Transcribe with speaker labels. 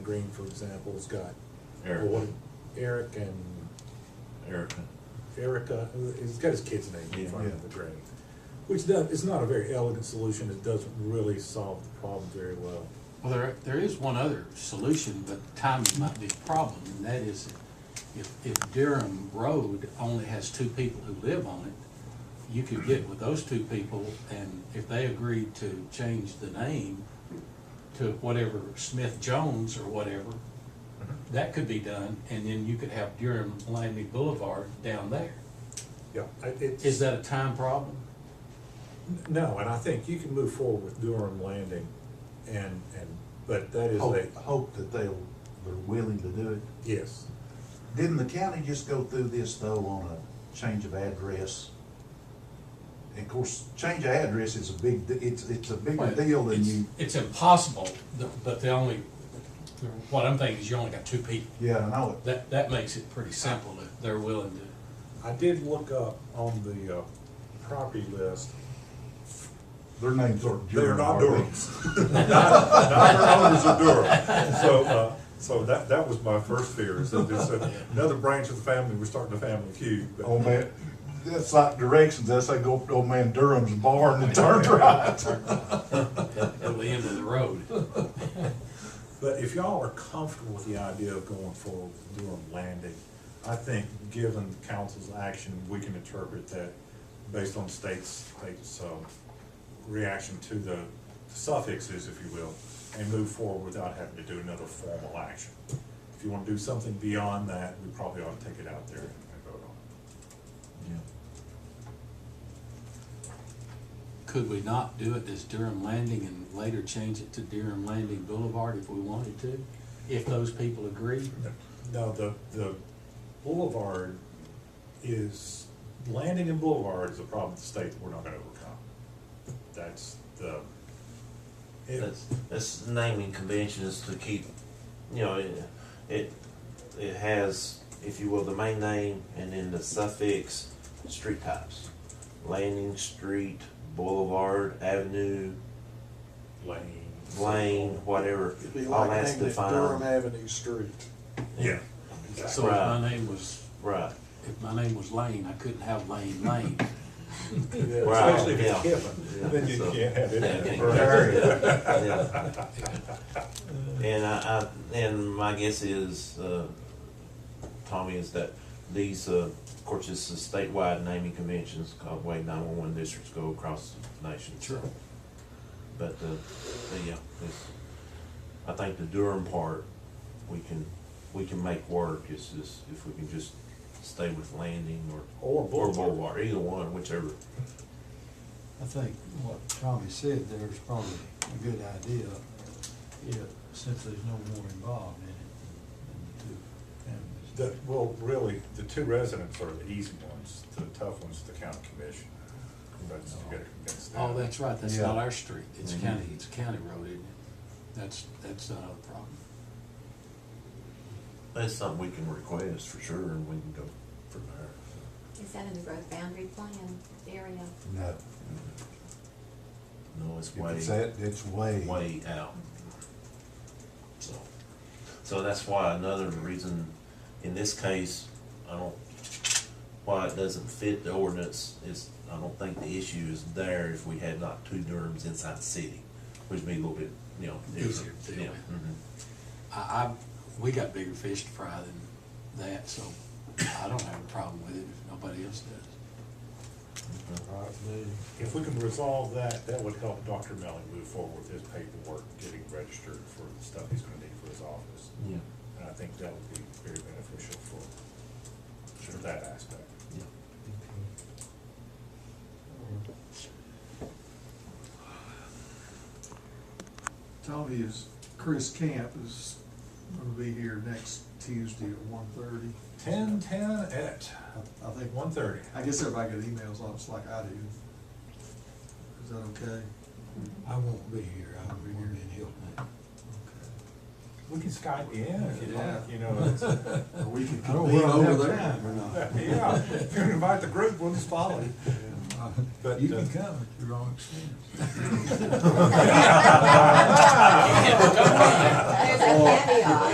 Speaker 1: Green, for example, has got.
Speaker 2: Eric.
Speaker 1: Well, what- Eric and
Speaker 2: Erica.
Speaker 1: Erica, who- he's got his kid's name in
Speaker 2: Yeah.
Speaker 1: front of
Speaker 3: Yeah.
Speaker 1: the grave. Which does, it's not a very elegant solution, it doesn't really solve the problem very well.
Speaker 4: Well, there, there is one other solution, but timing might be a problem, and that is if, if Durham Road only has two people who live on it, you could get with those two people, and if they agreed to change the name to whatever Smith Jones or whatever, that could be done, and then you could have Durham Langley Boulevard down there.
Speaker 1: Yeah, I- it's.
Speaker 4: Is that a time problem?
Speaker 1: No, and I think you can move forward with Durham Landing and, and, but that is a,
Speaker 3: Hope, hope that they'll, they're willing to do it.
Speaker 1: yes.
Speaker 3: Didn't the county just go through this though on a change of address? And of course, change of address is a big, it's, it's a bigger deal than
Speaker 4: It's-
Speaker 3: you,
Speaker 4: It's impossible, th- but the only, what I'm thinking is you only got two people.
Speaker 3: yeah, I know it.
Speaker 4: That, that makes it pretty simple if they're willing to.
Speaker 1: I did look up on the, uh, property list.
Speaker 3: Their names aren't.
Speaker 1: They're
Speaker 3: Durham,
Speaker 1: not
Speaker 3: are they?
Speaker 1: Durhams. Not- Neither owners of Durham. So, uh, so that, that was my first fear, is that there's another branch of the family, we're starting a family feud. but-
Speaker 3: Old Oh, man, that's like directions, that's like go up to old man Durham's barn and turn right.
Speaker 4: At the end of the road.
Speaker 1: But if y'all are comfortable with the idea of going forward with Durham Landing, I think, given council's action, we can interpret that based on state's, state's, um, reaction to the suffixes, if you will, and move forward without having to do another formal action. If you wanna do something beyond that, we probably ought to take it out there and vote on
Speaker 4: Could we not do it as Durham Landing and later change it to Durham Landing Boulevard if we wanted to? If those people agree?
Speaker 1: it. No, the, the boulevard is, landing and boulevard is a problem with the state that we're not gonna overcome. That's the. it-
Speaker 2: That's, that's naming conventions to keep, you know, it, it, it has, if you will, the main name and then the suffix, street types. Landing, street, boulevard, avenue,
Speaker 1: lane.
Speaker 2: lane, whatever,
Speaker 5: It'd be
Speaker 2: all
Speaker 5: like
Speaker 2: that's
Speaker 5: naming it Durham
Speaker 2: defined.
Speaker 5: Avenue Street.
Speaker 1: Yeah.
Speaker 4: So if my name was,
Speaker 2: Right,
Speaker 4: if my name was Lane, I couldn't have Lane Lane.
Speaker 2: Right,
Speaker 1: Especially if it's
Speaker 2: yeah.
Speaker 1: Kevin,
Speaker 2: Yeah,
Speaker 1: then you
Speaker 2: so-
Speaker 1: can't have
Speaker 2: Yeah,
Speaker 1: it.
Speaker 2: yeah.
Speaker 1: Right.
Speaker 2: yeah. And I, I, and my guess is, uh, Tommy, is that these, uh, of course, this is statewide naming conventions, called way nine-one-one districts go across the nation.
Speaker 4: Sure.
Speaker 2: But, uh, but yeah, it's, I think the Durham part, we can, we can make work, is just, if we can just stay with Landing or.
Speaker 1: Or Boulevard.
Speaker 2: either one, whichever.
Speaker 6: I think what Tommy said there is probably a good idea, if, since there's no more involved in it than the two
Speaker 1: The,
Speaker 6: families.
Speaker 1: well, really, the two residents are the easy ones, the tough ones, the county commission. That's, you gotta convince them.
Speaker 4: Oh, that's right, that's
Speaker 3: Yeah.
Speaker 4: not our street. It's
Speaker 2: Mhm.
Speaker 4: county, it's a county road, isn't it? That's, that's not a problem.
Speaker 2: That's something we can request for sure, and we can go from there.
Speaker 7: Is that in the road boundary plan area?
Speaker 3: No,
Speaker 2: No, it's
Speaker 3: if
Speaker 2: way.
Speaker 3: it's that, it's way.
Speaker 2: way out. So, so that's why another reason, in this case, I don't, why it doesn't fit the ordinance is, I don't think the issue is there if we had not two Durhams inside the city, which would be a little bit, you know,
Speaker 4: Easier
Speaker 2: different.
Speaker 4: to deal
Speaker 2: Yeah, mhm.
Speaker 4: I, I, we got bigger fish to fry than that, so I don't have a problem with it if nobody else does.
Speaker 2: mm-hmm,
Speaker 1: If we can resolve that, that would help Dr. Melling move forward with his paperwork, getting registered for the stuff he's gonna need for his office.
Speaker 2: Yeah,
Speaker 1: And I think that would be very beneficial for, for that aspect.
Speaker 2: yeah.
Speaker 5: Tommy is, Chris Camp is gonna be here next Tuesday at one thirty.
Speaker 1: Ten, ten at
Speaker 5: I think,
Speaker 1: one thirty.
Speaker 5: I guess everybody got emails on us like I do. Is that okay?
Speaker 6: I won't be here, I'll be here in Hilton.
Speaker 1: We can Skype in if you
Speaker 5: Yeah.
Speaker 1: like, you know. it's-
Speaker 5: Or we could
Speaker 6: I don't
Speaker 5: convene
Speaker 6: wanna
Speaker 5: another
Speaker 6: over there.
Speaker 5: time.
Speaker 1: Yeah, if you invite the group, we'll just follow you.
Speaker 5: I
Speaker 1: But,
Speaker 6: You can
Speaker 1: uh,
Speaker 6: come at the wrong expense.
Speaker 7: There's a caveat.